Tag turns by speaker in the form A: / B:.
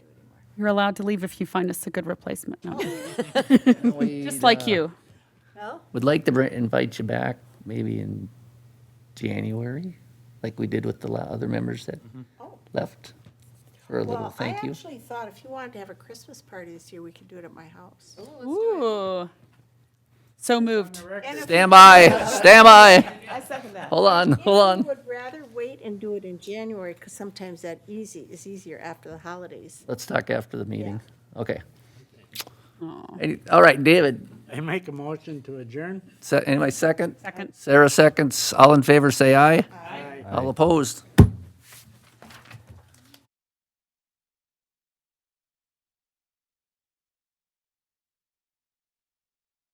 A: You're allowed to leave if you find us a good replacement. No,
B: We,
A: just like
B: uh,
A: you.
C: Well,
B: Would like to br- invite you back maybe in January, like we did with the la- other members that
C: Oh.
B: left for a little
C: well, I
B: thank you.
C: actually thought if you wanted to have a Christmas party this year, we could do it at my house.
A: Oh. Ooh. So moved.
C: And if
B: Stand by, stand by.
D: I second that.
B: Hold on,
C: if
B: hold
C: you
B: on.
C: Would rather wait and do it in January, because sometimes that easy, is easier after the holidays.
B: Let's talk after the meeting. Okay. Any- All right, David,
E: I make a motion to adjourn.
B: se- anyway, second?
A: Second.
B: Sarah seconds. All in favor, say aye. All opposed?